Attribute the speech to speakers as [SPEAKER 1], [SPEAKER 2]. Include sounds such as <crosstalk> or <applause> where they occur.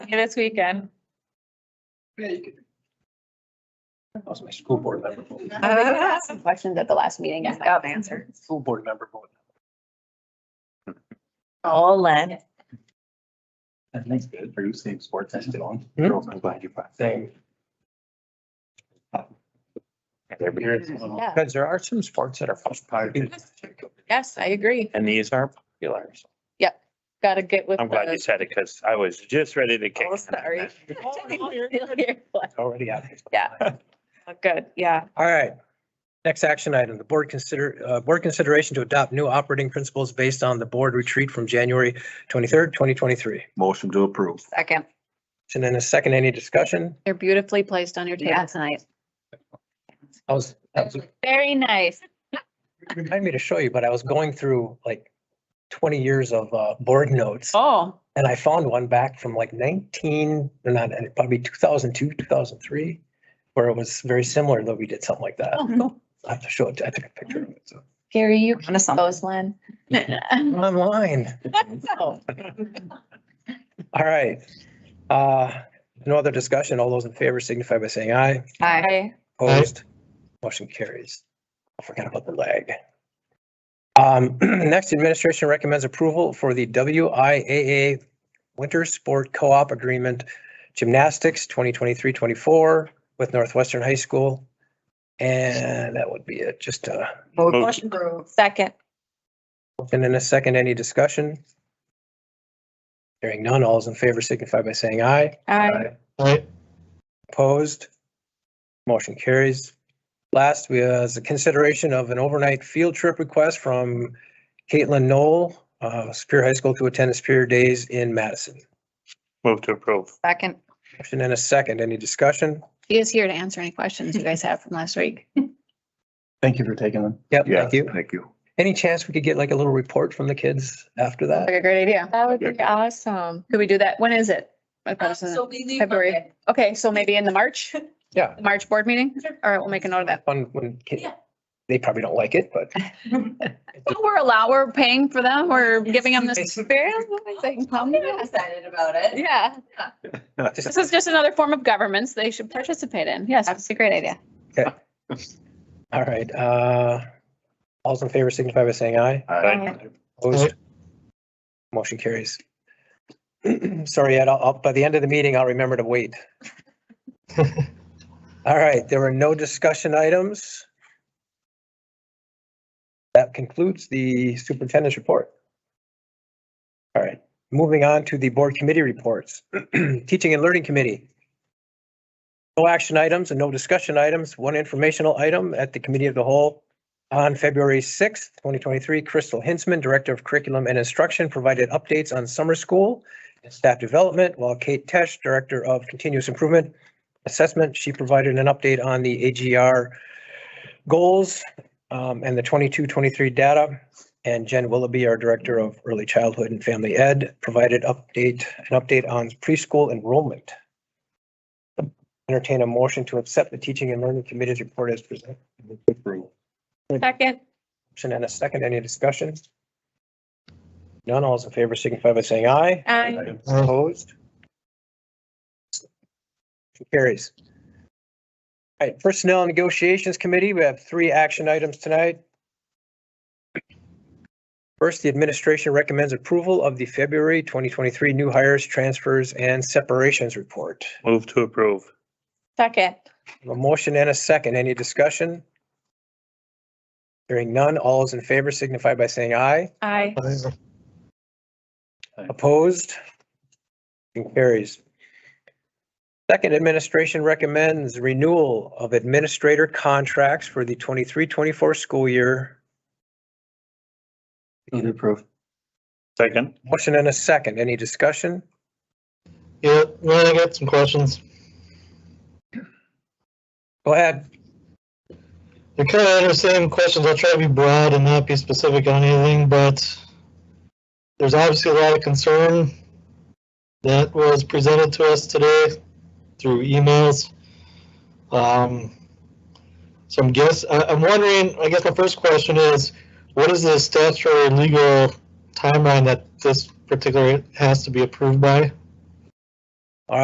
[SPEAKER 1] this
[SPEAKER 2] <laughs>
[SPEAKER 1] weekend.
[SPEAKER 3] Yeah, you could. That was my school board member. vote.
[SPEAKER 2] I think I
[SPEAKER 1] <laughs>
[SPEAKER 2] asked Some questions at the last meeting.
[SPEAKER 1] Yeah, I'll answer.
[SPEAKER 3] School board member vote.
[SPEAKER 1] All in.
[SPEAKER 3] That's good. Are you seeing sports that's still on? Girls, I'm glad you brought. Same.
[SPEAKER 2] Yeah.
[SPEAKER 4] Because there are some sports that are popular
[SPEAKER 1] Yes, I agree.
[SPEAKER 4] and these are popular. So
[SPEAKER 1] Gotta get with.
[SPEAKER 4] I'm glad you
[SPEAKER 1] the-
[SPEAKER 4] said it because I was just ready to kick.
[SPEAKER 1] Oh,
[SPEAKER 4] in on
[SPEAKER 1] sorry.
[SPEAKER 4] that.
[SPEAKER 1] <laughs> Oh,
[SPEAKER 3] Already out.
[SPEAKER 1] Good, yeah.
[SPEAKER 5] All right. Next action item, the board consider, uh, board consideration to adopt new operating principles based on the board retreat from January twenty-third, twenty twenty-three.
[SPEAKER 6] Motion to approve.
[SPEAKER 2] Second.
[SPEAKER 5] And in a second, any discussion?
[SPEAKER 1] They're beautifully placed on your
[SPEAKER 2] Yeah,
[SPEAKER 1] table.
[SPEAKER 2] tonight.
[SPEAKER 5] I was, I was-
[SPEAKER 1] Very nice.
[SPEAKER 5] remind me to show you, but I was going through like twenty years of, uh, board notes
[SPEAKER 1] Oh,
[SPEAKER 5] and I found one back from like nineteen, or not, probably two thousand two, two thousand three, where it was very similar, though we did something like that.
[SPEAKER 2] Oh, cool.
[SPEAKER 5] I have to show it. I took a picture of it. So
[SPEAKER 2] Gary, you can
[SPEAKER 1] Onto something.
[SPEAKER 2] close one.
[SPEAKER 5] online.
[SPEAKER 1] Oh.
[SPEAKER 5] All right. Uh, no other discussion. All those in favor signify by saying aye.
[SPEAKER 2] Hi.
[SPEAKER 1] I,
[SPEAKER 5] Opposed? Motion carries. I forgot about the lag. Um, <clears throat> next, administration recommends approval for the WIAA Winter Sport Co-op Agreement Gymnastics 2023-24 with Northwestern High School. And that would be it. Just, uh,
[SPEAKER 4] Motion
[SPEAKER 1] second.
[SPEAKER 5] And in a second, any discussion? Hearing none, all is in favor signify by saying aye.
[SPEAKER 1] I,
[SPEAKER 5] Opposed? Motion carries. Last, we has a consideration of an overnight field trip request from Caitlin Knoll, uh, Superior High School to attend the Superior Days in Madison.
[SPEAKER 4] Move to approve.
[SPEAKER 2] Second.
[SPEAKER 5] Motion and a second, any discussion?
[SPEAKER 2] He is here to answer any questions you guys have from last week.
[SPEAKER 3] Thank you for taking them.
[SPEAKER 5] Yep,
[SPEAKER 6] Yeah,
[SPEAKER 5] thank you.
[SPEAKER 6] Thank you.
[SPEAKER 5] Any chance we could get like a little report from the kids after that?
[SPEAKER 2] Like a great idea. Uh,
[SPEAKER 1] that would be awesome.
[SPEAKER 2] Could we do that? When is it? I thought it was in-
[SPEAKER 7] So we leave.
[SPEAKER 2] February.
[SPEAKER 7] Monday.
[SPEAKER 2] Okay, so maybe in the March?
[SPEAKER 5] <laughs> Yeah.
[SPEAKER 2] The March board meeting? All right, we'll make a note of that.
[SPEAKER 5] Fun when kid,
[SPEAKER 7] Yeah.
[SPEAKER 5] they probably don't like it, but
[SPEAKER 2] But We're allow, we're paying for them, we're giving them this experience. They can come.
[SPEAKER 7] I'm excited about it.
[SPEAKER 2] Yeah, this is just another form of governments they should participate in. Yes, that's a great idea.
[SPEAKER 5] all right. Uh, all's in favor signify by saying aye.
[SPEAKER 6] Aye.
[SPEAKER 5] Opposed? Motion carries. <clears throat> Sorry, Ed, I'll- I'll, by the end of the meeting, I'll remember to wait. All right, there were no discussion items. That concludes the superintendent's report. All right, moving on to the board committee reports. <clears throat> Teaching and Learning Committee. No action items and no discussion items, one informational item at the committee of the whole. On February 6th, 2023, Crystal Hinsman, Director of Curriculum and Instruction, provided updates on summer school and staff development, while Kate Tesh, Director of Continuous Improvement Assessment, she provided an update on the AGR goals um, and the 22-23 data. And Jen Willoughby, our Director of Early Childhood and Family Ed, provided update, an update on preschool enrollment. Entertain a motion to accept the Teaching and Learning Committee's report as presented.
[SPEAKER 1] Second.
[SPEAKER 5] Motion and a second. Any discussion? None. All those in favor signify by saying aye.
[SPEAKER 1] I,
[SPEAKER 5] Opposed? Motion Carries. All right, Personnel and Negotiations Committee, we have three action items tonight. First, the administration recommends approval of the February 2023 new hires, transfers, and separations report.
[SPEAKER 4] Move to approve.
[SPEAKER 1] second.
[SPEAKER 5] A motion and a second. Any discussion? Hearing none. All those in favor signify by saying aye.
[SPEAKER 1] I,
[SPEAKER 5] Opposed? Motion carries. Second, administration recommends renewal of administrator contracts for the 23-24 school year.
[SPEAKER 3] Move to approve.
[SPEAKER 4] Second.
[SPEAKER 5] Motion and a second. Any discussion?
[SPEAKER 8] Yeah, well, I got some questions.
[SPEAKER 5] Go ahead.
[SPEAKER 8] They're kind of the same questions. I'll try to be broad and not be specific on anything, but there's obviously a lot of concern that was presented to us today through emails. Um, so I'm guess I, I'm wondering. I guess my first question is, what is the statutory legal timeline that this particular has to be approved by?